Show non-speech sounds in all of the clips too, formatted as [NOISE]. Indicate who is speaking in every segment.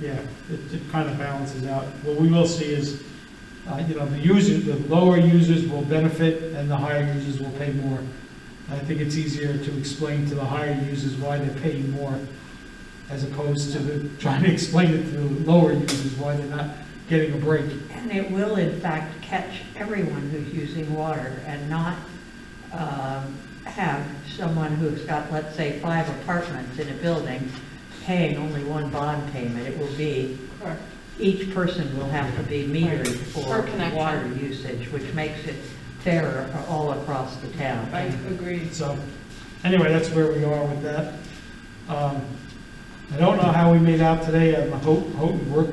Speaker 1: yeah, it, it kind of balances out. What we will see is, uh, you know, the users, the lower users will benefit and the higher users will pay more. I think it's easier to explain to the higher users why they're paying more as opposed to the- trying to explain it to the lower users why they're not getting a break.
Speaker 2: And it will in fact catch everyone who's using water and not um, have someone who's got, let's say, five apartments in a building paying only one bond payment. It will be,
Speaker 3: Correct.
Speaker 2: each person will have to be metered
Speaker 3: Per
Speaker 2: for
Speaker 3: connection.
Speaker 2: water usage, which makes it fairer all across the town.
Speaker 3: I agree.
Speaker 1: So, anyway, that's where we are with that. Um, I don't know how we made out today on the Ho- Houghton work,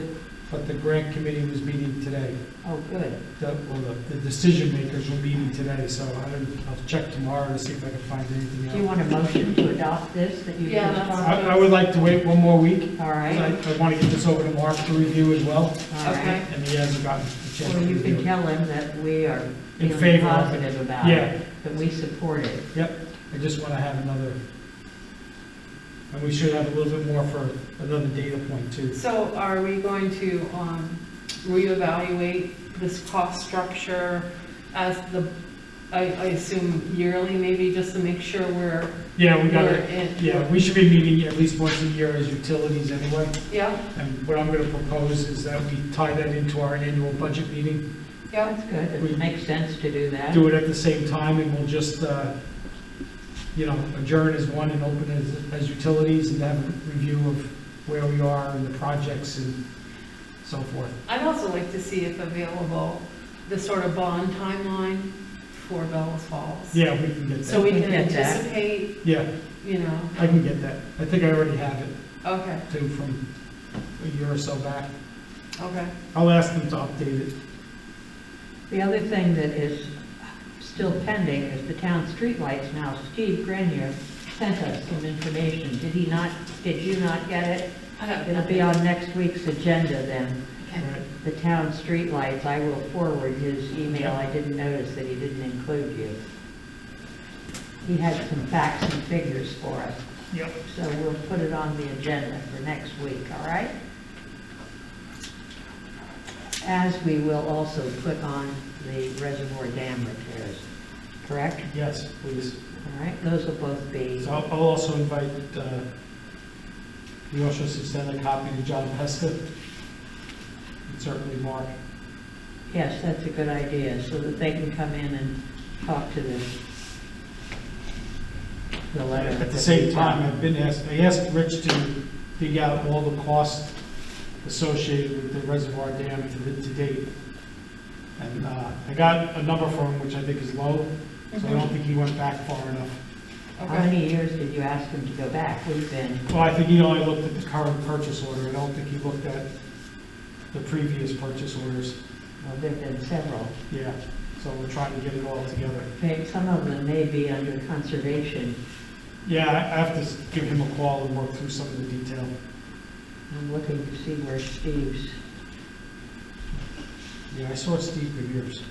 Speaker 1: but the grant committee was meeting today.
Speaker 2: Oh, good.
Speaker 1: The, well, the, the decision makers were meeting today, so I don't, I'll check tomorrow to see if I can find
Speaker 2: Do you
Speaker 1: anything else.
Speaker 2: want a motion to adopt this that you
Speaker 3: Yeah,
Speaker 2: just
Speaker 3: that's-
Speaker 2: talked?
Speaker 1: I, I would like to wait one more week,
Speaker 2: All
Speaker 1: 'cause
Speaker 2: right,
Speaker 1: I, I want to get this over to Mark to review as well,
Speaker 2: all right.
Speaker 3: Okay.
Speaker 1: and he hasn't gotten a chance
Speaker 2: Well,
Speaker 1: to
Speaker 2: you
Speaker 1: review
Speaker 2: can
Speaker 1: it.
Speaker 2: tell him that we are
Speaker 1: In
Speaker 2: feeling
Speaker 1: favor of it.
Speaker 2: positive about it.
Speaker 1: Yeah,
Speaker 2: that we support it.
Speaker 1: I just want to have another, and we should have a little bit more for another data point too.
Speaker 3: So are we going to um, reevaluate this cost structure as the, I I assume yearly, maybe, just to make sure we're.
Speaker 1: Yeah, we got
Speaker 3: we're
Speaker 1: it.
Speaker 3: in-
Speaker 1: Yeah, we should be meeting at least once a year as utilities anyway.
Speaker 3: Yeah,
Speaker 1: And what I'm going to propose is that we tie that into our annual budget meeting,
Speaker 3: yeah,
Speaker 2: That's good,
Speaker 1: We-
Speaker 2: it makes sense to do that.
Speaker 1: do it at the same time, and we'll just, uh, you know, adjourn as one and open as, as utilities and have a review of where we are and the projects and so forth.
Speaker 3: I'd also like to see if available, the sort of bond timeline for Bellas Falls.
Speaker 1: Yeah, we can get
Speaker 3: So
Speaker 1: that.
Speaker 3: we
Speaker 2: We
Speaker 3: can
Speaker 2: get that.
Speaker 3: anticipate,
Speaker 1: Yeah,
Speaker 3: you know,
Speaker 1: I can get that. I think I already have it
Speaker 3: okay,
Speaker 1: too from a year or so back.
Speaker 3: okay.
Speaker 1: I'll ask them to update it.
Speaker 2: The other thing that is still pending is the town streetlights now. Steve Grenier sent us some information, did he not, did you not get it? It'll be on next week's agenda then,
Speaker 1: All right.
Speaker 2: the town streetlights, I will forward his email, I didn't notice that he didn't include you. He had some facts and figures for us,
Speaker 1: Yep.
Speaker 2: so we'll put it on the agenda for next week, all right? As we will also put on the reservoir dam repairs, correct?
Speaker 1: Yes, please.
Speaker 2: All right, those will both be,
Speaker 1: So I'll I'll also invite, uh, you also should send a copy to John Pesca, and certainly Mark.
Speaker 2: yes, that's a good idea, so that they can come in and talk to the, the letter.
Speaker 1: At
Speaker 2: that
Speaker 1: the
Speaker 2: we
Speaker 1: same
Speaker 2: got.
Speaker 1: time, I've been asked, I asked Rich to dig out all the costs associated with the reservoir dam to the- to date. And uh, I got a number for him, which I think is low, so I don't think he went back far enough.
Speaker 2: How many years did you ask them to go back? We've been,
Speaker 1: Well, I think he only looked at the current purchase order, I don't think he looked at the previous purchase orders.
Speaker 2: well, there've been several.
Speaker 1: Yeah, so we're trying to get it all together.
Speaker 2: Maybe Some of them may be under conservation,
Speaker 1: Yeah, I I have to s- give him a call and work through some of the detail.
Speaker 2: I'm looking to see where Steve's,
Speaker 1: Yeah, I saw Steve Bevere's.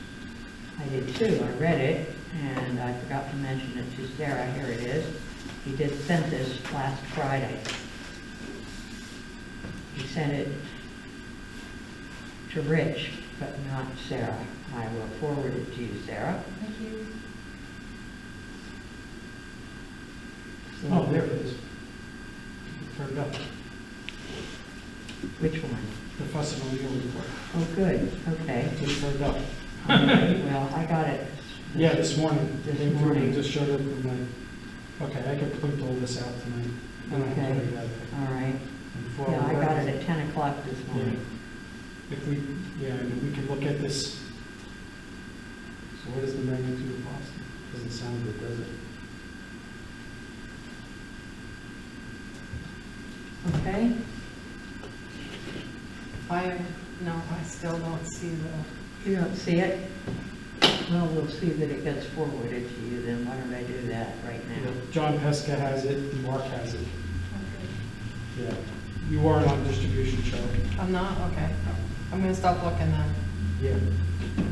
Speaker 2: I did too, I read it, and I forgot to mention it to Sarah, here it is. He did send this last Friday. He sent it to Rich, but not Sarah. I will forward it to you, Sarah.
Speaker 3: Thank you.
Speaker 2: So-
Speaker 1: Oh, there it is. Turned up,
Speaker 2: Which one?
Speaker 1: the fussing on the old report,
Speaker 2: Oh, good,
Speaker 1: [LAUGHS]
Speaker 2: okay.
Speaker 1: just turned up.
Speaker 2: Well, I got it.
Speaker 1: Yeah, this morning,
Speaker 2: This
Speaker 1: they approved it,
Speaker 2: morning.
Speaker 1: just showed up in my, okay, I can print all this out tonight. and I can put it together.
Speaker 2: All right.
Speaker 1: And for-
Speaker 2: Yeah, I got it at 10 o'clock this morning.
Speaker 1: um, If we, yeah, I mean, we can look at this. So what is the magnitude of Boston? Doesn't sound good, does it?
Speaker 2: Okay?
Speaker 3: I, no, I still don't see the,
Speaker 2: You don't see it? Well, we'll see that it gets forwarded to you then. Why don't I do that right now?
Speaker 1: John Pesca has it, and Mark has it. Yeah. You weren't on distribution, Charlie.
Speaker 2: Oh.
Speaker 3: I'm not, okay. I'm gonna stop looking then.
Speaker 1: Yeah.